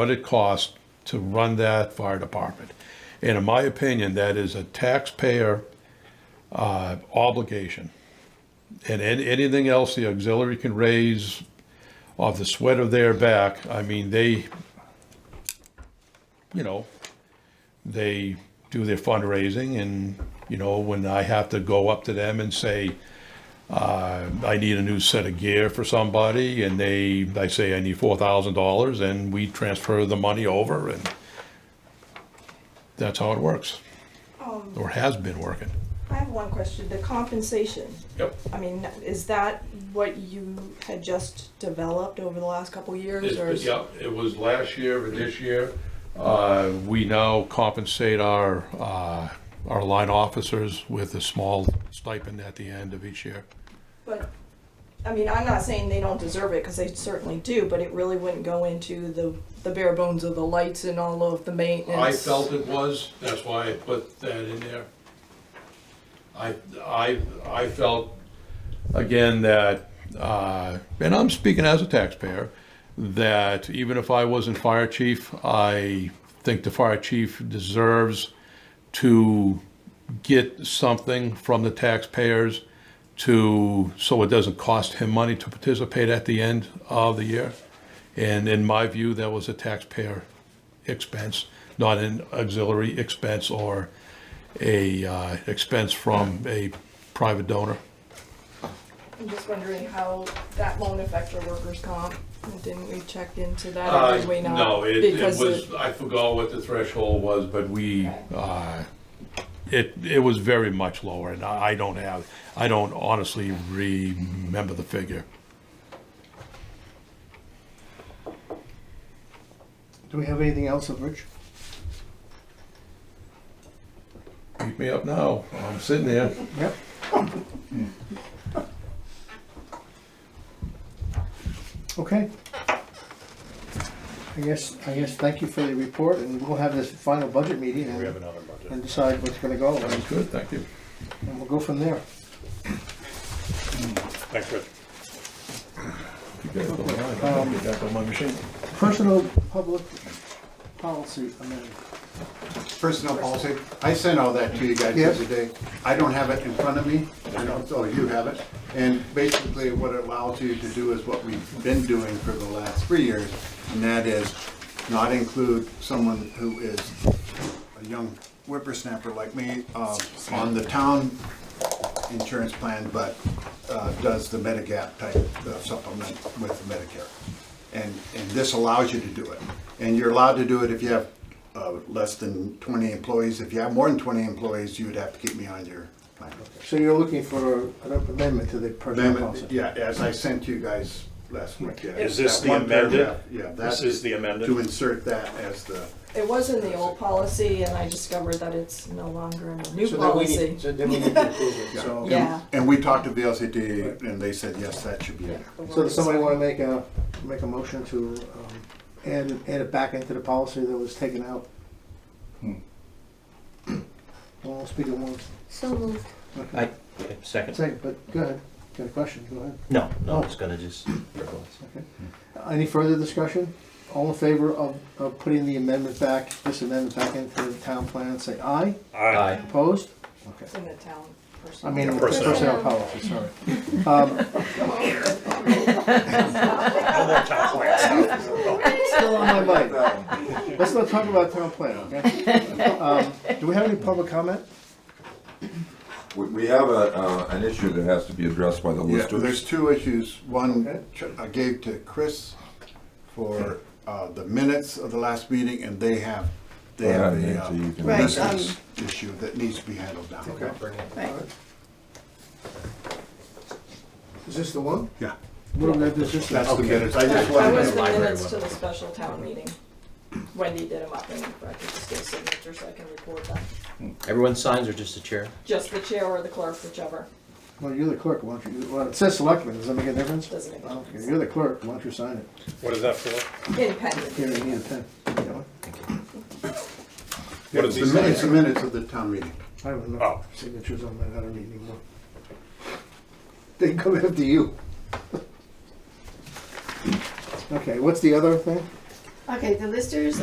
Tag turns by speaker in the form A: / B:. A: what it costs to run that fire department. And in my opinion, that is a taxpayer uh, obligation. And an- anything else the auxiliary can raise off the sweat of their back, I mean, they, you know, they do their fundraising and, you know, when I have to go up to them and say, uh, I need a new set of gear for somebody and they, I say I need four thousand dollars and we transfer the money over and that's how it works. Or has been working.
B: I have one question, the compensation,
A: Yep.
B: I mean, is that what you had just developed over the last couple years, or? is-
A: Yeah, it was last year and this year. Uh, we now compensate our, uh, our line officers with a small stipend at the end of each year.
B: But, I mean, I'm not saying they don't deserve it, because they certainly do, but it really wouldn't go into the, the bare bones of the lights and all of the maintenance.
A: I felt it was, that's why I put that in there. I, I, I felt, again, that, uh, and I'm speaking as a taxpayer, that even if I wasn't fire chief, I think the fire chief deserves to get something from the taxpayers to, so it doesn't cost him money to participate at the end of the year. And in my view, that was a taxpayer expense, not an auxiliary expense or a uh, expense from a private donor.
B: I'm just wondering how that won't affect your workers' comp, didn't we check into that, or
A: Uh,
B: did we not?
A: No, it- it
B: Because
A: was, I forgot what the threshold was, but we, uh, it, it was very much lower, and I I don't have, I don't honestly remember the figure.
C: Do we have anything else of Rich?
A: Beat me up now, I'm sitting there.
C: Yep. Hmm. Okay. I guess, I guess, thank you for the report, and we'll have this final budget meeting and
A: another budget.
C: and decide what's gonna go, and
A: Sounds good, thank you.
C: and we'll go from there.
A: Thanks, Rich. You guys don't mind, I gotta get back on my machine.
C: Personal public policy amendment.
D: Personnel policy, I sent all that to you guys the
C: Yes.
D: other day. I don't have it in front of me, I don't, oh, you have it. And basically, what it allows you to do is what we've been doing for the last three years, and that is not include someone who is a young whippersnapper like me uh, on the town insurance plan, but uh, does the Medigap type uh, supplement with Medicare. And, and this allows you to do it. And you're allowed to do it if you have uh, less than 20 employees. If you have more than 20 employees, you would have to keep me on your plan.
C: So you're looking for an amendment to the personal
D: Amendment,
C: policy?
D: Yeah, as I sent you guys last week. yeah,
E: Is this
D: that
E: the
D: one
E: amended?
D: paragraph, Yeah.
E: This
D: that-
E: is the amended?
D: To insert that as the,
B: It was in the old policy, and I discovered that it's no longer in the new
C: So then we
B: policy.
C: need, so then we need to approve it, so.
B: Yeah.
D: and we talked to VLCT and they said, yes, that should be in there.
C: So does somebody wanna make a, make a motion to, um, add, add it back into the policy that was taken out? Hmm. Well, I'll speak at once.
F: So moved.
C: Okay.
G: I, second,
C: Second, but go ahead, got a question, go ahead.
G: no, no, I was gonna just, verbalize.
C: Any further discussion? All in favor of, of putting the amendment back, this amendment back into the town plan, say aye.
G: aye.
C: Opposed? Okay.
B: It's in the town person.
C: I mean,
E: Yeah, personnel.
C: personnel policy, sorry. Um, Still on my mind.
H: Um,
C: Let's not talk about town plan, okay? Um, Do we have any public comment?
H: We, we have a, uh, an issue that has to be addressed by the
D: Yeah, there's
H: listers.
D: two issues.
C: Okay.
D: One ch- I gave to Chris for uh, the minutes of the last meeting, and they have, they
H: Well,
D: have
H: I mean,
D: a uh,
H: so you can-
F: Right,
D: business issue that needs to be handled down.
F: Right.
C: Is this the one?
D: Yeah,
C: What am I doing? Is this the-
D: that's the minutes. I just
B: That was
D: wanted
B: the
D: to,
B: minutes to the special town meeting. Wendy did them up, and I could just get a signature so I can record them.
G: Everyone signs or just the chair?
B: Just the chair or the clerk, whichever.
C: Well, you're the clerk, why don't you, well, it says selectmen, does that make a difference?
B: Doesn't make a
C: I don't care.
B: difference.
C: You're the clerk, why don't you sign it?
E: What is that for?
C: Here,
B: Independent.
C: you need a pen. You got one?
D: Yeah,
E: What
D: it's
E: is
D: the
E: he
D: min- it's the
E: saying?
D: minutes of the town meeting.
C: I don't know,
E: Oh.
C: signatures on that, I don't need anymore. They come after you. Okay, what's the other thing?
F: Okay, the listers